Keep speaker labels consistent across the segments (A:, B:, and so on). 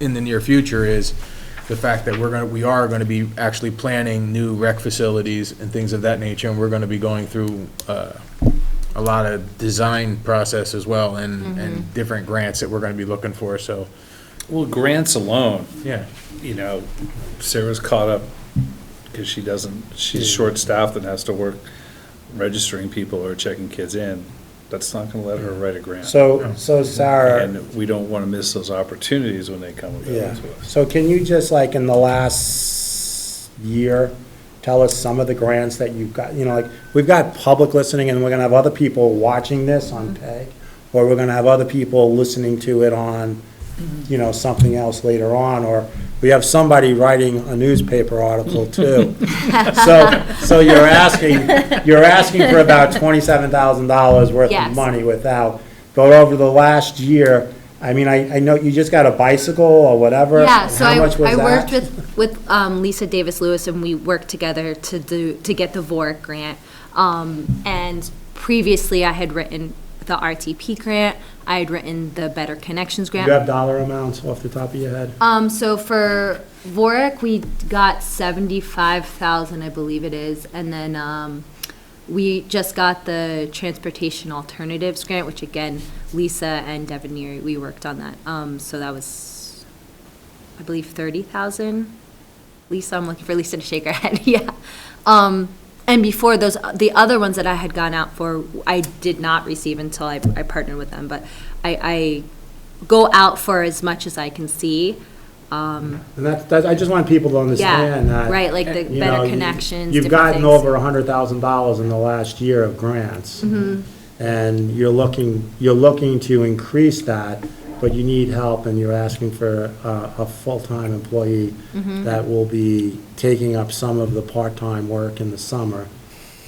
A: in the near future is the fact that we're gonna, we are gonna be actually planning new rec facilities and things of that nature, and we're gonna be going through, uh, a lot of design process as well, and, and different grants that we're gonna be looking for, so,
B: Well, grants alone,
A: yeah.
B: you know, Sarah's caught up because she doesn't, she's short-staffed and has to work registering people or checking kids in. That's not gonna let her write a grant.
C: So, uh, so Sarah,
B: And we don't want to miss those opportunities when they come
C: yeah,
B: available to us.
C: so can you just like in the last year, tell us some of the grants that you've got, you know, like, we've got public listening and we're gonna have other people watching this on PEG, or we're gonna have other people listening to it on, you know, something else later on, or we have somebody writing a newspaper article too. So, so you're asking, you're asking for about twenty-seven thousand dollars worth of
D: Yes.
C: money without. But over the last year, I mean, I, I know you just got a bicycle or whatever.
D: Yeah,
C: and
D: so
C: how
D: I,
C: much was
D: I worked
C: that?
D: with, with um, Lisa Davis Lewis, and we worked together to do, to get the VORC grant. Um, And previously, I had written the RTP grant, I had written the Better Connections
C: Do
D: grant.
C: you have dollar amounts off the top of your head?
D: Um, so for Vorik, we got seventy-five thousand, I believe it is, and then, um, we just got the Transportation Alternatives Grant, which again, Lisa and Devin Neary, we worked on that, um, so that was, I believe, thirty thousand. Lisa, I'm looking for Lisa to shake her head, yeah. Um, and before those, the other ones that I had gone out for, I did not receive until I, I partnered with them, but I, I go out for as much as I can see. Um,
C: And that's, that's, I just want people to
D: yeah,
C: understand that. Uh,
D: right, like the
C: you know,
D: better
C: you-
D: connections,
C: You've
D: different
C: gotten
D: things.
C: over a hundred thousand dollars in the last year of grants.
D: Mm-hmm.
C: And you're looking, you're looking to increase that, but you need help and you're asking for a, a full-time employee
D: Mm-hmm.
C: that will be taking up some of the part-time work in the summer.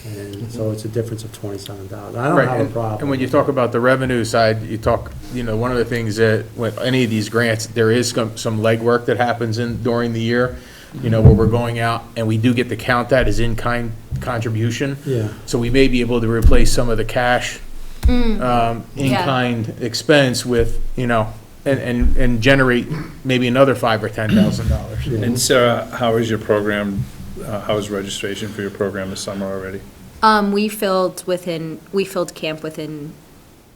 C: And so it's a difference of twenty-seven thousand. I
A: Mm-hmm.
C: don't
A: Right,
C: have
A: and-
C: a problem.
A: And when you talk about the revenue side, you talk, you know, one of the things that, with any of these grants, there is some, some legwork that happens in, during the year, you know, where we're going out, and we do get to count that as in-kind contribution.
C: Yeah.
A: So we may be able to replace some of the cash, um,
D: yeah.
A: in-kind expense with, you know, and, and, and generate maybe another five or ten thousand dollars.
B: And Sarah, how is your program, uh, how is registration for your program this summer already?
D: Um, we filled within, we filled camp within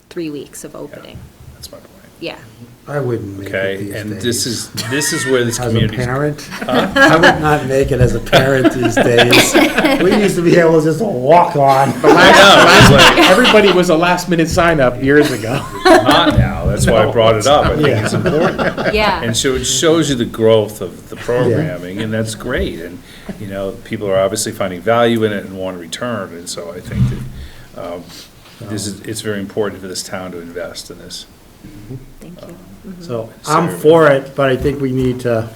D: three weeks of opening,
B: That's my point.
D: yeah.
C: I wouldn't make it these
B: Okay,
C: days.
B: and this is, this is where this
C: As a
B: community's
C: parent, I would not make it as a parent these days. We used to be able to just walk on.
A: Everybody was a last-minute sign-up years ago.
B: not now. That's why I brought it up. I think it's
C: Yeah.
B: important.
D: Yeah,
B: And so it shows you the growth of the programming, and that's great. And, you know, people are obviously finding value in it and want to return, and so I think that um, this is, it's very important for this town to invest in this.
D: thank you.
C: So I'm for it, but I think we need to,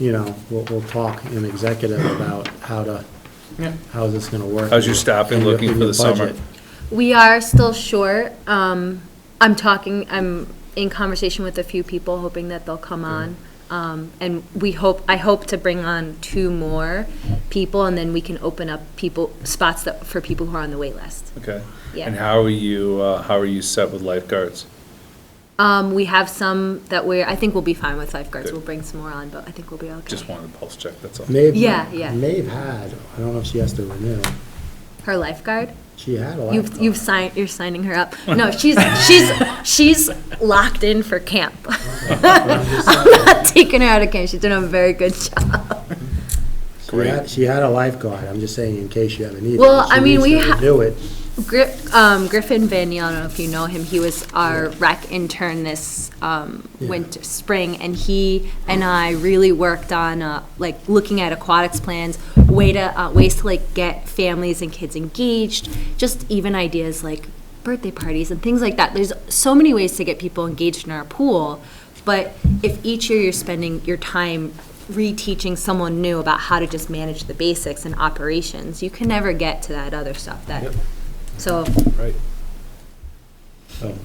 C: you know, we'll, we'll talk in executive about how to,
A: Yeah.
C: how's this gonna work.
B: How's your staffing
C: in your-
B: looking
C: in
B: for
C: your
B: the summer?
C: budget.
D: We are still short. Um, I'm talking, I'm in conversation with a few people, hoping that they'll come on. Um, and we hope, I hope to bring on two more people, and then we can open up people, spots that, for people who are on the wait list.
B: Okay?
D: Yeah.
B: And how are you, uh, how are you set with lifeguards?
D: Um, we have some that we're, I think we'll be fine with lifeguards.
B: Good.
D: We'll bring some more on, but I think we'll be okay.
B: Just wanted to pulse check, that's all.
C: Maeve-
D: Yeah, yeah.
C: Maeve had, I don't know if she has to renew,
D: Her lifeguard?
C: she had a
D: You've,
C: lot.
D: you've signed, you're signing her up. No, she's, she's, she's locked in for camp. I'm not taking her out of camp. She's doing a very good job.
C: She had, she had a lifeguard, I'm just saying in case you ever need it.
D: Well,
C: She
D: I
C: needs
D: mean, we
C: to
D: ha-
C: renew it.
D: Gri- um, Griffin Van Neal, I don't know if you know him, he was our rec intern this um,
C: Yeah.
D: winter, spring, and he and I really worked on, uh, like, looking at aquatics plans, way to, uh, ways to, like, get families and kids engaged, just even ideas like birthday parties and things like that. There's so many ways to get people engaged in our pool, but if each year you're spending your time reteaching someone new about how to just manage the basics and operations, you can never get to that other stuff that, so,
B: Right.
C: So,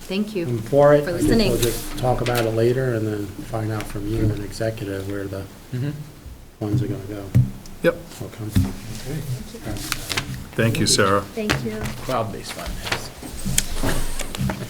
D: thank
C: I'm
D: you.
C: for it.
D: For
C: I think
D: listening.
C: We'll just talk about it later and then find out from you and executive where the
B: Mm-hmm.
C: funds are gonna go.
A: Yep.
C: Or come from.
B: Thank you, Sarah.
D: Thank you.
A: Cloud-based finance.